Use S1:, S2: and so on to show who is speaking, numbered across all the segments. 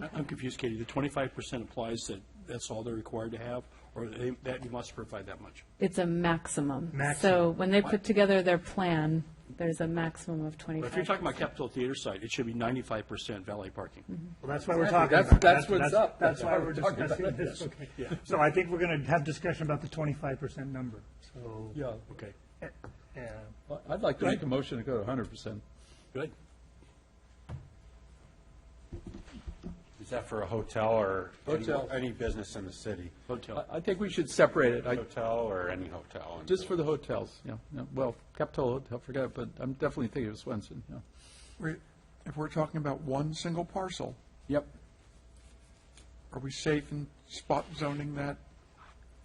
S1: I- I'm confused, Katie. The twenty-five percent applies that that's all they're required to have, or they- that you must provide that much?
S2: It's a maximum. So
S3: Maximum.
S2: when they put together their plan, there's a maximum of
S1: But if you're
S2: 25.
S1: talking about Capitol Theater site, it should be ninety-five percent valet parking.
S4: Mm-hmm.
S3: Well, that's why we're talking
S5: Exactly. That's-
S3: about it.
S5: that's what's
S3: That's
S5: up. That's
S3: why
S5: why
S3: we're
S5: we're talking
S3: discussing
S5: about
S3: this.
S5: this.
S3: Okay. So I think we're going to have discussion about the twenty-five percent number, so.
S5: Yeah,
S1: Okay,
S3: Yeah.
S5: Well, I'd like to make a motion to go to hundred percent.
S1: good.
S6: Is that for a hotel or? any-
S5: Hotel.
S6: Any business in the city?
S1: Hotel.
S5: I, I think we should separate it, I,
S6: Hotel or any hotel? in-
S5: just for the hotels, yeah, yeah, well, Capitol Hotel, forget it, but I'm definitely thinking of Swenson, yeah.
S4: We're- If we're talking about one single parcel,
S5: Yep,
S4: are we safe in spot zoning that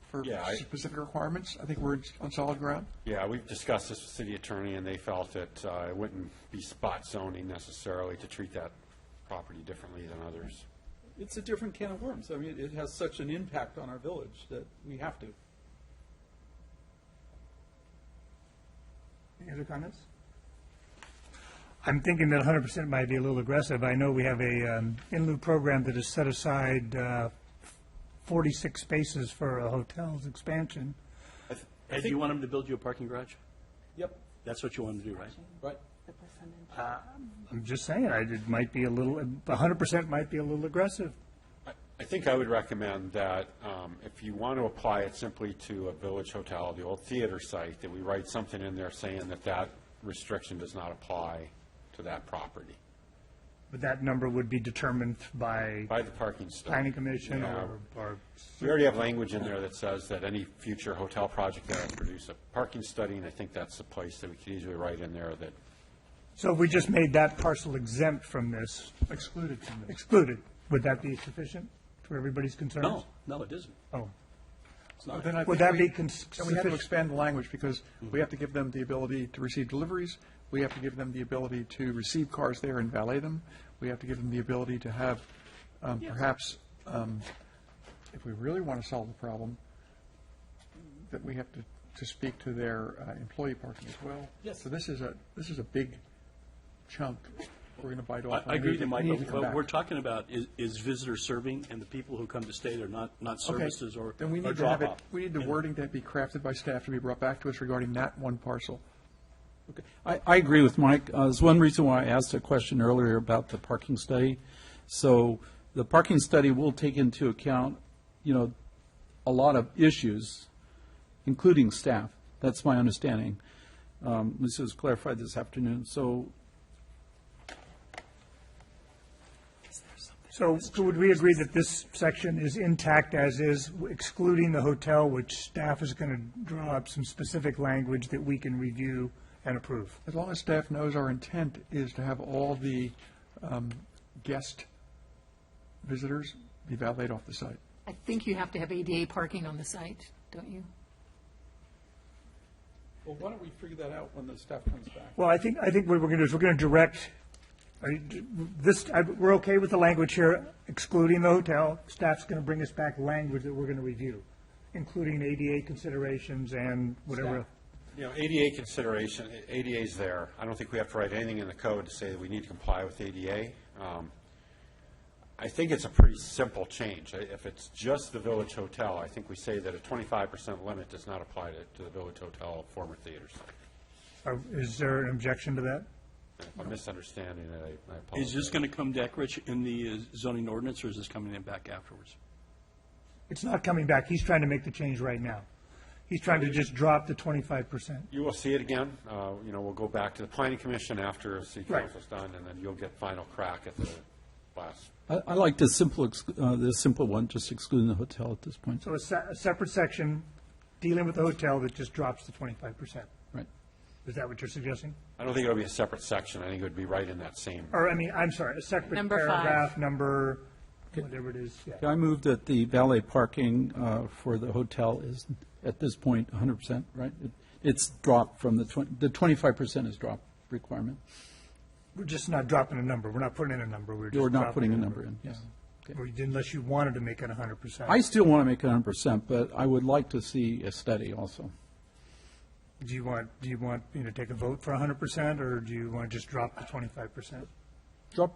S4: for
S6: Yeah, I-
S4: specific requirements? I think we're on solid ground.
S6: Yeah, we've discussed this with city attorney, and they felt that uh, it wouldn't be spot zoning necessarily to treat that property differently than others.
S5: it's a different can of worms, I mean, it has such an impact on our village that we have to.
S3: Any other comments? I'm thinking that hundred percent might be a little aggressive. I know we have a, um, in lieu program that has set aside, uh, forty-six spaces for a hotel's expansion.
S1: Ed, do you want them to build you a parking garage?
S5: Yep,
S1: That's what you want them to do, right?
S5: right.
S3: I'm just saying, I, it might be a little, hundred percent might be a little aggressive.
S6: I- I think I would recommend that um, if you want to apply it simply to a village hotel, the old theater site, that we write something in there saying that that restriction does not apply to that property
S3: But that number would be determined by
S6: by the parking study.
S3: planning commission
S6: Yeah.
S3: or, or
S6: We already have language in there that says that any future hotel project that would produce a parking study, and I think that's the place that we could easily write in there that
S3: So if we just made that parcel exempt from this,
S4: Excluded from this.
S3: excluded, would that be sufficient for everybody's concerns?
S1: No, no, it isn't.
S3: Oh,
S1: It's not.
S4: Then I
S3: Would that
S4: think we-
S3: be cons-
S4: Then we have to
S3: sufficient?
S4: expand the language because we have to give them the ability to receive deliveries. We have to give them the ability to receive cars there and valet them. We have to give them the ability to have um, perhaps, um, if we really want to solve the problem, that we have to, to speak to their uh, employee parking as well.
S5: Yes.
S4: So this is a, this is a big chunk we're going to bite
S1: I
S4: off.
S1: I agree with you, Mike,
S4: We need to
S1: but
S4: come
S1: what
S4: back.
S1: we're talking about is- is visitor serving and the people who come to stay there, not, not
S4: Okay,
S1: services or
S4: Then we
S1: or
S4: need to have it,
S1: drop-off.
S4: we need the wording to be crafted by staff to be brought back to us regarding that one parcel.
S5: Okay. I, I agree with Mike. Uh, There's one reason why I asked a question earlier about the parking study. So the parking study will take into account, you know, a lot of issues, including staff. That's my understanding. Um, This was clarified this afternoon. So
S3: So so would we agree that this section is intact as is, excluding the hotel, which staff is going to draw up some specific language that we can review and approve?
S4: As long as staff knows our intent is to have all the um, guest visitors be valeted off the site.
S7: I think you have to have ADA parking on the site, don't you?
S5: Well, why don't we figure that out when the staff comes back?
S3: Well, I think, I think what we're going to do is we're going to direct, I- this, I- we're okay with the language here, excluding the hotel. Staff's going to bring us back language that we're going to review, including ADA considerations and whatever.
S6: You know, ADA consideration, ADA's there. I don't think we have to write anything in the code to say that we need to comply with ADA. Um, I think it's a pretty simple change. I- If it's just the Village Hotel, I think we say that a twenty-five percent limit does not apply to, to the Village Hotel, former theaters.
S3: Are- Is there an objection to that?
S6: If I'm misunderstanding it, I- I apologize.
S1: Is this going to come, Deck Rich, in the uh, zoning ordinance, or is this coming in back afterwards?
S3: It's not coming back. He's trying to make the change right now. He's trying to just drop the twenty-five percent.
S6: You will see it again. Uh, you know, we'll go back to the planning commission after the city
S3: Right.
S6: council's done, and then you'll get final crack at the last.
S8: I, I like the simple, ex- uh, the simple one, just excluding the hotel at this point.
S3: So a se- a separate section dealing with the hotel that just drops the twenty-five percent.
S8: Right.
S3: Is that what you're suggesting?
S6: I don't think it'll be a separate section. I think it would be right in that same
S3: Or, I mean, I'm sorry, a separate
S2: Number five.
S3: paragraph, number, whatever it is, yeah.
S8: I move that the valet parking uh, for the hotel is, at this point, 100%, right? It- It's dropped from the 20, the 25% is drop requirement.
S3: We're just not dropping a number. We're not putting in a number. We're just.
S8: You're not
S3: dropping
S8: putting a number in, yes.
S3: Or you- Unless you wanted to make it hundred percent.
S8: I still want to make it 100%, but I would like to see a study also.
S3: Do you want, do you want, you know, take a vote for hundred percent, or do you want to just drop the twenty-five percent?
S8: Drop,